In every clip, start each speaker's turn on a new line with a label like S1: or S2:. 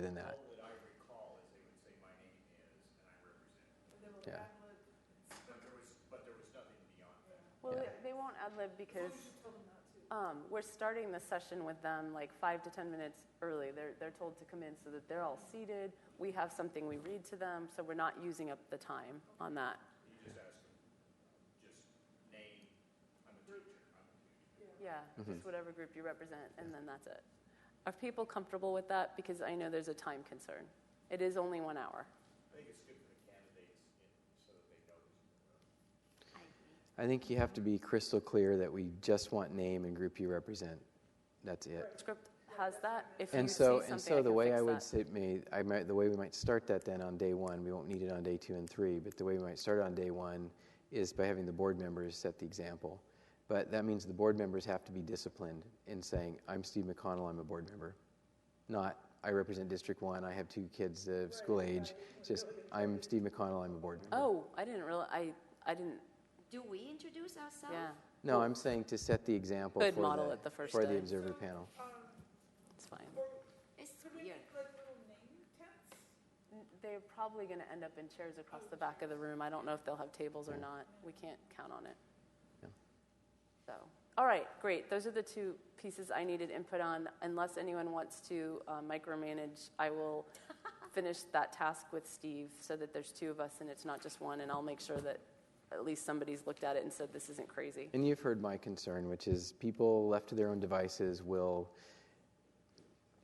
S1: than that. Yeah.
S2: Well,
S1: Yeah.
S2: they- they won't ad lib because um, we're starting the session with them like five to 10 minutes early. They're, they're told to come in so that they're all seated. We have something we read to them, so we're not using up the time on that. Yeah,
S1: Mm-hmm.
S2: just whatever group you represent, and then that's it. Are people comfortable with that? Because I know there's a time concern. It is only one hour.
S1: I think you have to be crystal clear that we just want name and group you represent. That's it.
S2: Script has that. If you
S1: And so,
S2: see
S1: and
S2: something, I
S1: so the
S2: can
S1: way
S2: fix
S1: I
S2: that.
S1: would say, may, I might, the way we might start that then on day one, we won't need it on day two and three, but the way we might start on day one is by having the board members set the example. But that means the board members have to be disciplined in saying, I'm Steve McConnell, I'm a board member. Not, I represent District One, I have two kids of school age, just, I'm Steve McConnell, I'm a board member.
S2: Oh, I didn't realize. I, I didn't.
S3: Do we introduce ourselves?
S2: Yeah,
S1: No, I'm saying to set the example
S2: Good
S1: for
S2: model
S1: the,
S2: at the first
S1: for
S2: day.
S1: the observer panel.
S2: it's fine.
S3: It's
S4: Could we
S3: weird.
S4: make like little name tents?
S2: They're probably going to end up in chairs across the back of the room. I don't know if they'll have tables or not. We can't count on it.
S1: Yeah.
S2: So, all right, great. Those are the two pieces I needed input on. Unless anyone wants to uh, micromanage, I will finish that task with Steve so that there's two of us and it's not just one. And I'll make sure that at least somebody's looked at it and said this isn't crazy.
S1: And you've heard my concern, which is people left to their own devices will,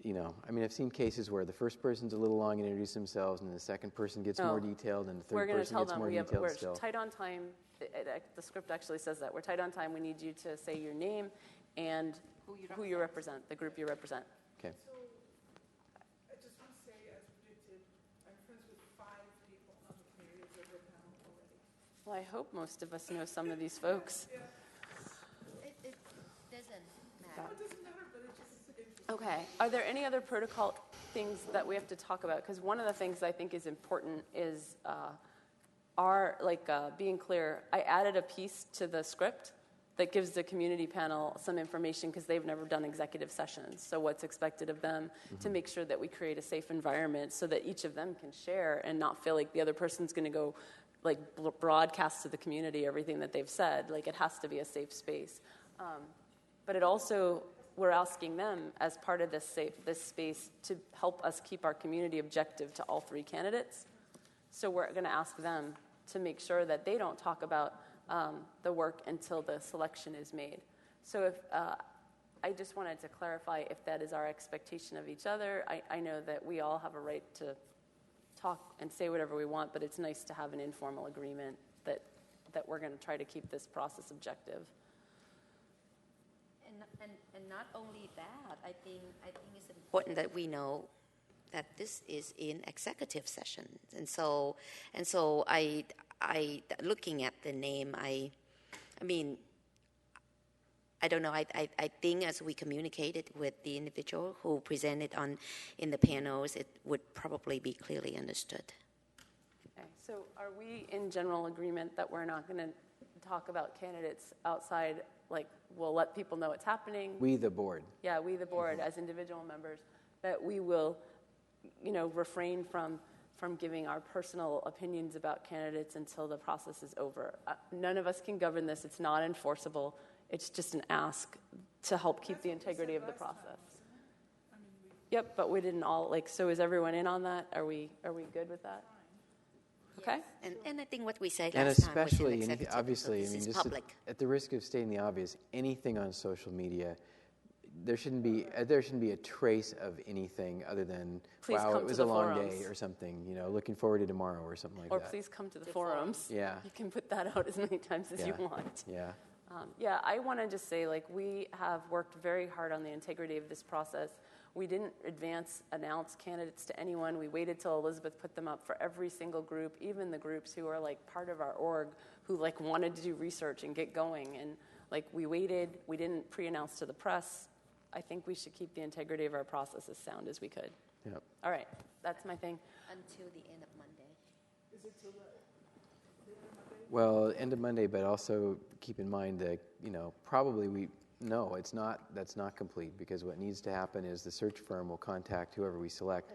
S1: you know, I mean, I've seen cases where the first person's a little long and introduce themselves, and the second person gets
S2: No.
S1: more detailed, and the
S2: Oh, We're
S1: third
S2: going to
S1: person
S2: tell
S1: gets
S2: them
S1: more
S2: we have,
S1: detailed
S2: we're
S1: still.
S2: tight on time. It- it act- the script actually says that. We're tight on time. We need you to say your name and
S3: Who you
S2: who you represent, the group you represent.
S1: Okay.
S4: So I just want to say, as predicted, I'm friends with five people on the community observer panel already.
S2: Well, I hope most of us know some of these folks.
S3: It, it doesn't
S2: Yeah.
S3: matter.
S4: It doesn't matter, but it just is interesting.
S2: Okay. Are there any other protocol things that we have to talk about? Because one of the things I think is important is uh, our like uh, being clear. I added a piece to the script that gives the community panel some information because they've never done executive sessions. So what's expected of them to make sure that we create a safe environment so that each of them can share and not feel like the other person's going to go like bl- broadcast to the community everything that they've said. Like it has to be a safe space. Um, but it also, we're asking them as part of this safe, this space to help us keep our community objective to all three candidates. So we're going to ask them to make sure that they don't talk about um, the work until the selection is made. So if, uh, I just wanted to clarify if that is our expectation of each other. I, I know that we all have a right to talk and say whatever we want, but it's nice to have an informal agreement that, that we're going to try to keep this process objective.
S3: And, and, and not only that, I think, I think it's important that we know that this is in executive session. And so, and so I, I, looking at the name, I, I mean, I don't know. I, I, I think as we communicated with the individual who presented on in the panels, it would probably be clearly understood.
S2: Okay, so are we in general agreement that we're not going to talk about candidates outside, like, we'll let people know it's happening?
S1: We, the board.
S2: Yeah, we, the board, as individual members, that we will, you know, refrain from, from giving our personal opinions about candidates until the process is over. Uh, None of us can govern this, it's not enforceable, it's just an ask to help keep the integrity of the process. Yep, but we didn't all, like, so is everyone in on that? Are we, are we good with that? Okay?
S3: And, and I think what we said
S1: and
S3: last time was
S1: especially,
S3: in
S1: anything,
S3: executive, so
S1: obviously, I
S3: this
S1: mean,
S3: is
S1: just at,
S3: public.
S1: at the risk of stating the obvious, anything on social media, there shouldn't be uh, there shouldn't be a trace of anything other than
S2: Please
S1: wow,
S2: come
S1: it
S2: to
S1: was a
S2: the
S1: long
S2: forums.
S1: day or something. You know, looking forward to tomorrow or something like
S2: Or
S1: that.
S2: please come to the forums.
S1: Yeah.
S2: You can put that out as many times as you
S1: Yeah.
S2: want.
S1: Yeah.
S2: Um, yeah, I want to just say, like, we have worked very hard on the integrity of this process. We didn't advance announce candidates to anyone. We waited till Elizabeth put them up for every single group, even the groups who are like part of our org, who like wanted to do research and get going. And like, we waited. We didn't pre-announce to the press. I think we should keep the integrity of our process as sound as we could.
S1: Yep.
S2: All right, that's my thing.
S3: until the end of Monday.
S1: Well, end of Monday, but also keep in mind that you know probably we no, it's not, that's not complete, because what needs to happen is the search firm will contact whoever we select